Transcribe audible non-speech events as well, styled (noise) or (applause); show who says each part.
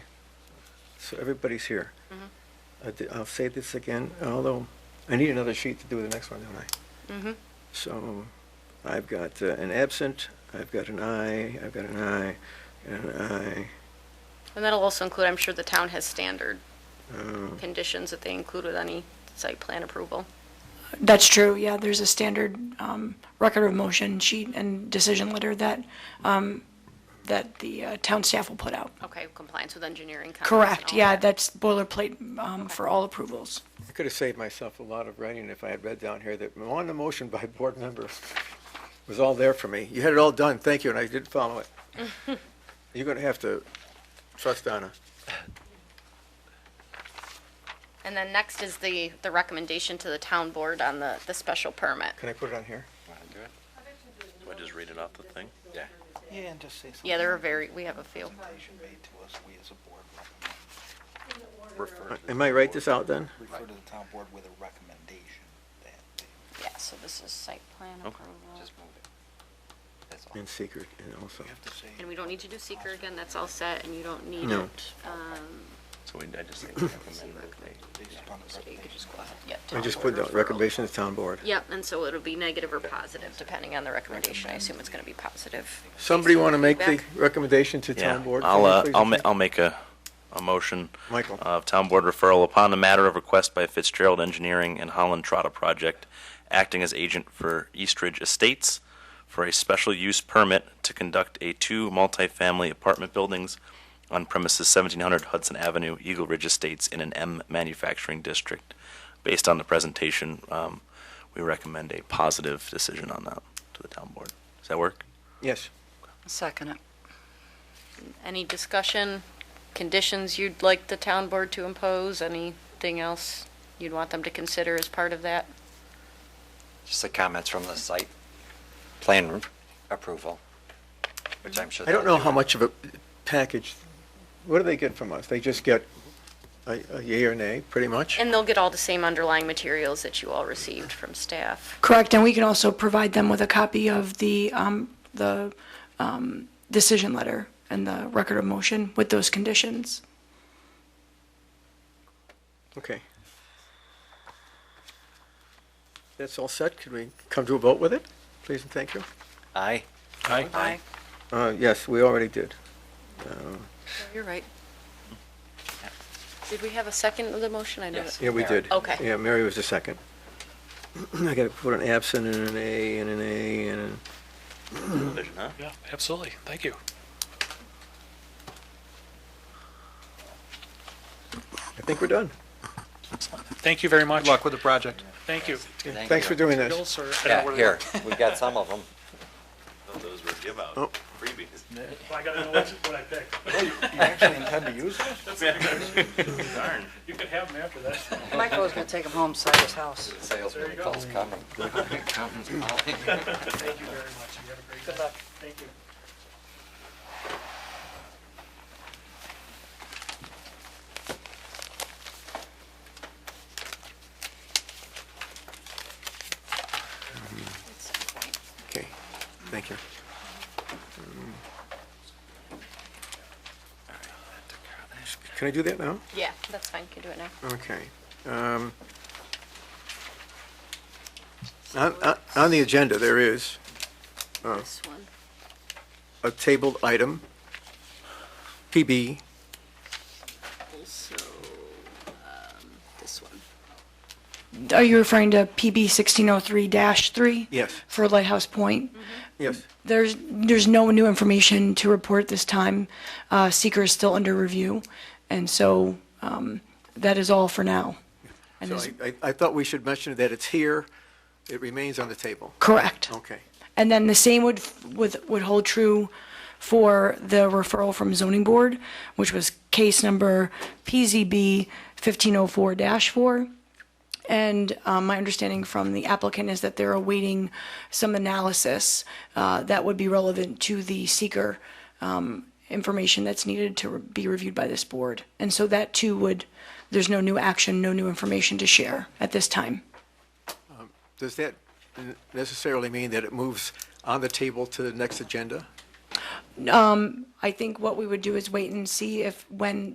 Speaker 1: so everybody's here. I di- I'll say this again, although I need another sheet to do the next one, don't I? Mm-hmm.
Speaker 2: Mhm.
Speaker 1: So I've got uh, an absent, I've got an aye, I've got an aye, and an aye.
Speaker 2: And that'll also include, I'm sure the town has standard
Speaker 1: uh,
Speaker 2: conditions that they include with any site plan approval.
Speaker 3: That's true, yeah, there's a standard um, record of motion sheet and decision letter that, um, that the uh, town staff will put out.
Speaker 2: Okay, compliance with engineering. comments and
Speaker 3: Correct,
Speaker 2: all
Speaker 3: yeah,
Speaker 2: that.
Speaker 3: that's boilerplate um, for all approvals.
Speaker 1: I could have saved myself a lot of writing if I had read down here that on the motion by board member (laughs) was all there for me. You had it all done, thank you, and I did follow (laughs) it. You're going to have to trust Donna.
Speaker 2: And then next is the, the recommendation to the town board on the, the special permit.
Speaker 1: Can I put it on here?
Speaker 4: Do I just read it off the thing? Yeah.
Speaker 5: Yeah, and just say something.
Speaker 2: Yeah, there are very, we have a few.
Speaker 5: Presentation made to us, we as a board recommend,
Speaker 4: Refer to the
Speaker 1: Uh, Am I write
Speaker 4: board.
Speaker 1: this out then?
Speaker 5: refer to the town board with a recommendation that they
Speaker 2: Yeah, so this is site plan
Speaker 4: Okay.
Speaker 2: approval.
Speaker 5: just move it. That's all.
Speaker 1: In secret and also.
Speaker 5: We have to say,
Speaker 2: And we don't need to do seeker again, that's all set, and you don't need
Speaker 1: No.
Speaker 2: it. um,
Speaker 4: So we, I just think
Speaker 1: (laughs)
Speaker 2: see
Speaker 4: recommend that they,
Speaker 2: recommend-
Speaker 5: based upon the
Speaker 2: So you could
Speaker 5: presentation.
Speaker 2: just go ahead, yeah.
Speaker 1: I
Speaker 2: town
Speaker 1: just
Speaker 2: board
Speaker 1: put the
Speaker 2: referral.
Speaker 1: recommendation to town board.
Speaker 2: Yep, and so it'll be negative or positive, depending on the recommendation. I assume it's gonna be positive.
Speaker 1: Somebody want to make the
Speaker 2: Feedback?
Speaker 1: recommendation to
Speaker 4: yeah,
Speaker 1: town board?
Speaker 4: I'll, uh,
Speaker 1: please?
Speaker 4: I'll, ma- I'll make a, a motion. uh,
Speaker 1: Michael.
Speaker 4: Of town board referral upon the matter of request by Fitzgerald Engineering and Holland Trotta Project, acting as agent for Eastridge Estates for a special use permit to conduct a two multifamily apartment buildings on premises seventeen hundred Hudson Avenue, Eagle Ridge Estates in an M manufacturing district. Based on the presentation, um, we recommend a positive decision on that to the town board. Does that work?
Speaker 1: Yes.
Speaker 6: Second it.
Speaker 2: Any discussion, conditions you'd like the town board to impose, anything else you'd want them to consider as part of that?
Speaker 7: Just the comments from the site plan approval, which I'm sure.
Speaker 1: I don't
Speaker 7: they'll
Speaker 1: know how much of a package, what do they get from us? They just get a a yea or nay, pretty much?
Speaker 2: And they'll get all the same underlying materials that you all received from staff.
Speaker 3: Correct, and we can also provide them with a copy of the, um, the um, decision letter and the record of motion with those conditions.
Speaker 1: Okay. That's all set. Could we come to a vote with it? Please and thank you.
Speaker 7: Aye.
Speaker 6: Aye.
Speaker 1: Uh, Yes, we already did. Um,
Speaker 2: You're right. Did we have a second of the motion? I know
Speaker 7: Yes.
Speaker 2: that-
Speaker 1: Yeah, we
Speaker 7: Mary.
Speaker 1: did.
Speaker 2: Okay.
Speaker 1: Yeah, Mary was the second. (clears throat) I got to put an absent and an A and an A and an...
Speaker 4: Vision, huh?
Speaker 8: Yeah, absolutely. Thank you.
Speaker 1: I think we're done.
Speaker 8: Thank you very much.
Speaker 9: Good luck with the project.
Speaker 8: Thank you.
Speaker 7: Thank
Speaker 1: Thanks for
Speaker 7: you.
Speaker 1: doing
Speaker 8: Bill,
Speaker 1: this.
Speaker 8: sir.
Speaker 7: (laughs) Yeah, here, we got some of them.
Speaker 4: Those were give out,
Speaker 1: Oh.
Speaker 4: freebies.
Speaker 8: I gotta know what I picked.
Speaker 5: You actually intend to use it?
Speaker 4: Darn.
Speaker 8: You can have them after that.
Speaker 6: Michael was gonna take him home, sell his house.
Speaker 7: Salesman calls coming. (laughs)
Speaker 8: Thank you very much. You have a great day. Good luck. Thank you.
Speaker 1: Okay, thank you. Can I do that now?
Speaker 2: Yeah, that's fine, you can do it now.
Speaker 1: Okay. um, On on- on the agenda, there is
Speaker 2: This one.
Speaker 1: a tabled item, PB
Speaker 2: Also, um, this one.
Speaker 3: Are you referring to PB 1603-3?
Speaker 1: Yes.
Speaker 3: For Lighthouse Point?
Speaker 1: Yes,
Speaker 3: There's, there's no new information to report this time. Uh, Seeker is still under review, and so um, that is all for now. And
Speaker 1: so
Speaker 3: is-
Speaker 1: I- I, I thought we should mention that it's here, it remains on the table.
Speaker 3: Correct.
Speaker 1: Okay,
Speaker 3: And then the same would, would, would hold true for the referral from zoning board, which was case number PZB 1504-4. And um, my understanding from the applicant is that they're awaiting some analysis uh, that would be relevant to the seeker um, information that's needed to re- be reviewed by this board. And so that too would, there's no new action, no new information to share at this time.
Speaker 1: does that necessarily mean that it moves on the table to the next agenda?
Speaker 3: I think what we would do is wait and see if, when